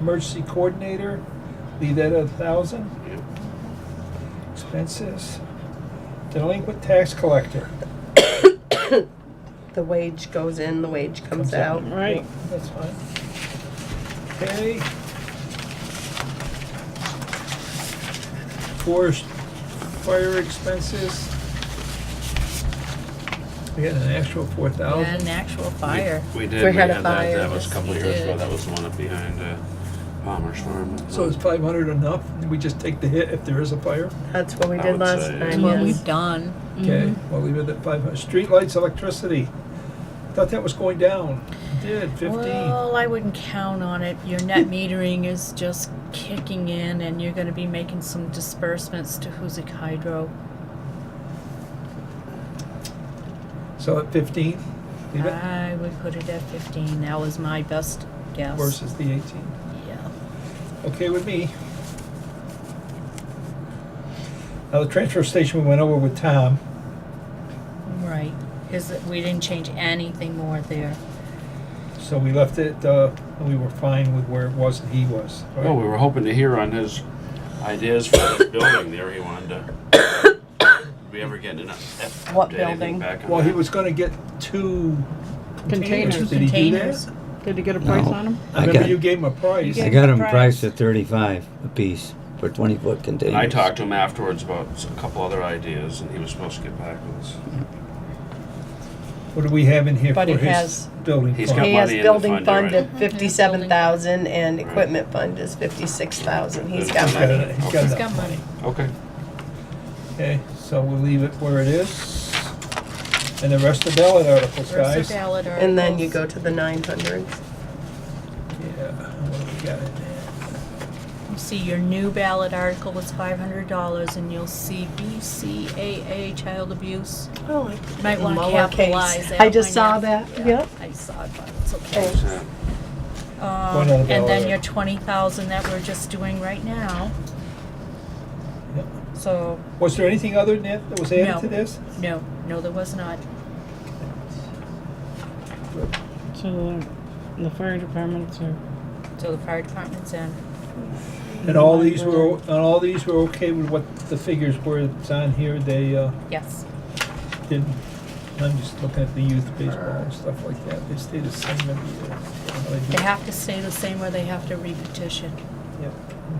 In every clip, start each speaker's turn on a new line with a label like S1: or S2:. S1: emergency coordinator, leave that at a thousand.
S2: Yep.
S1: Expenses. Delinquent tax collector.
S3: The wage goes in, the wage comes out.
S4: Right.
S1: Yep, That's fine. Okay. Forest fire expenses. We had an actual four
S4: Yeah,
S1: thousand.
S4: an actual fire.
S2: We did,
S3: We
S2: we had
S3: had
S2: that,
S3: a fire,
S2: that was a
S4: yes,
S2: couple
S4: we
S2: years ago,
S4: did.
S2: that was the one up behind uh, Palmer's Farm.
S1: So is five hundred enough? We just take the hit if there is a fire?
S3: That's what we
S2: I
S3: did
S2: would
S3: last
S2: say,
S4: That's
S3: time,
S4: what
S3: yes.
S4: we've done.
S1: Okay,
S4: Mm-hmm.
S1: well, leave it at five hundred. Streetlights, electricity. Thought that was going down. It Did fifteen.
S4: Well, I wouldn't count on it. Your net metering is just kicking in and you're gonna be making some disbursements to Huzik Hydro.
S1: So at fifteen, leave it
S4: I would put it at fifteen. That was my best guess.
S1: versus the eighteen.
S4: Yeah.
S1: Okay with me. Now, the transfer station we went over with Tom.
S4: Right. Is that, we didn't change anything more there.
S1: So we left it, uh, and we were fine with where it was that he was. right?
S2: Well, Oh, we were hoping to hear on his ideas for this building there, he wanted to. Did we ever get enough?
S3: What
S2: did anything
S3: building?
S2: back on
S1: Well, he
S2: that?
S1: was gonna get two
S5: Containers.
S1: containers.
S4: Two
S1: Did he do
S4: containers.
S1: that?
S5: Did you get a price
S6: No.
S5: on them?
S1: I
S6: I
S1: remember
S6: got-
S1: you gave him a price.
S5: You
S6: I
S5: gave
S6: got
S5: the
S6: them
S5: price.
S6: priced at thirty-five apiece for twenty-foot containers.
S2: I talked to him afterwards about s- a couple other ideas, and he was supposed to get back with us.
S1: What do we have in here for
S4: But it
S1: his
S4: has-
S1: building?
S2: He's
S1: fund?
S2: got
S3: He has
S2: money in the
S3: building
S2: fund already.
S3: fund at fifty-seven thousand and equipment fund is fifty-six thousand. He's got
S1: He's got
S3: money.
S1: it- he's got
S4: He's
S1: it.
S4: got money.
S2: Okay.
S1: Okay, so we'll leave it where it is. And the rest of ballot articles,
S4: Versus
S1: guys. Yeah,
S4: ballot
S3: And then you
S4: articles.
S3: go to the nine hundreds.
S1: what do we got in there?
S4: You See, your new ballot article was five hundred dollars and you'll see BCAA child abuse.
S3: Oh, I
S4: You Might wanna
S3: Lowercase.
S4: capitalize that.
S3: I just
S4: one,
S3: saw
S4: yeah.
S3: that,
S4: Yeah,
S3: yep.
S4: I saw it, but it's okay.
S3: Thanks.
S2: So,
S4: Um,
S1: One other
S4: and
S1: ballot.
S4: then your twenty thousand that we're just doing right now.
S1: Yep.
S4: So,
S1: Was there anything other than that that was added
S4: No.
S1: to this?
S4: no, no, there was not.
S5: So the, the fire departments are.
S4: So the fire department's in.
S1: And all these were, and all these were okay with what the figures were that's on here, they, uh,
S4: Yes.
S1: didn't, I'm just looking at the youth baseball and stuff like that, they stayed the same every year. I don't know
S4: They
S1: they
S4: have to stay the same or they have to repetition.
S1: do. Yep,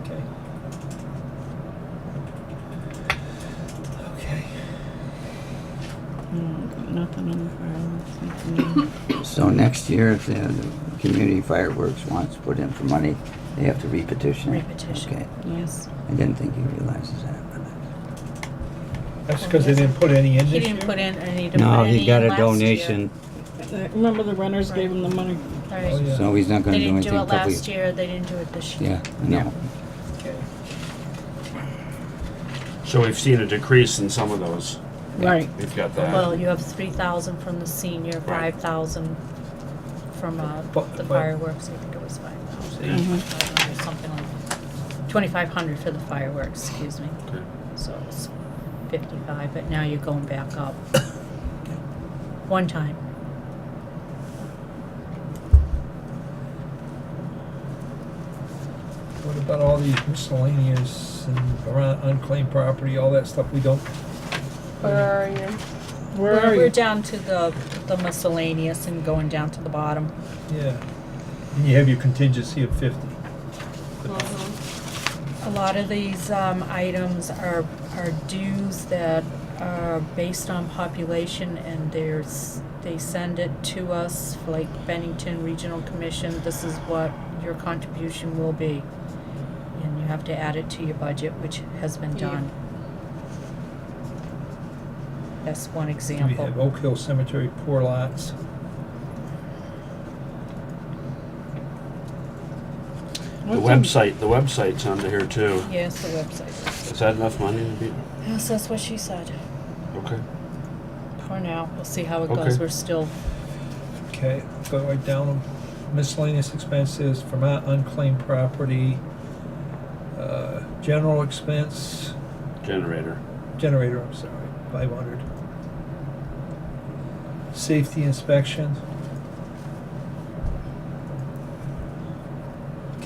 S1: okay. Okay.
S5: No, got nothing on the fire. Nothing on-
S6: So next year, if the the community fireworks wants to put in for money, they have to repetition. it?
S4: Repetition.
S6: Okay,
S4: Yes.
S6: I didn't think he realizes that. but-
S1: That's because they didn't put any in this
S4: He
S1: year?
S4: didn't put in any. to
S6: No,
S4: put any
S6: he got
S4: in
S6: a
S4: last year.
S6: donation,
S5: Uh, Remember the runners gave him the money.
S1: Oh,
S4: Right.
S1: yeah.
S6: so he's not
S4: They
S6: gonna do
S4: didn't
S6: anything
S4: do it
S6: till we.
S4: last year, they didn't do it this year.
S6: Yeah, I know.
S1: Okay.
S2: So we've seen a decrease in some of those.
S5: Right.
S2: We've got
S4: Well,
S2: that.
S4: you have three thousand from the senior,
S2: Right.
S4: five thousand from, uh,
S1: But-
S4: the
S1: but-
S4: fireworks, I think it was five thousand. Something like, twenty-five hundred for the fireworks, excuse me,
S2: Okay.
S4: so it's fifty-five, but now you're going back up. One time.
S1: What about all these miscellaneous and around unclaimed property, all that stuff we don't,
S3: Where are you?
S5: Where
S4: We're,
S5: are
S4: we're
S5: you?
S4: down to the, the miscellaneous and going down to the bottom.
S1: yeah. And you have your contingency of fifty.
S4: A lot of these um, items are, are dues that are based on population and there's, they send it to us, like Bennington Regional Commission, this is what your contribution will be. And you have to add it to your budget, which has been done. That's one
S1: We have
S4: example.
S1: Oak Hill Cemetery, poor lots.
S2: The
S5: What's
S2: website, the website's under here too.
S4: Yes, the website.
S2: Is that enough money to be,
S4: Yes, that's what she said.
S2: okay?
S4: For now, we'll see how it
S2: Okay.
S4: goes, we're still
S1: Okay, go right down miscellaneous expenses, Vermont unclaimed property, uh, general expense,
S2: Generator.
S1: generator, I'm sorry, five hundred. Safety inspection,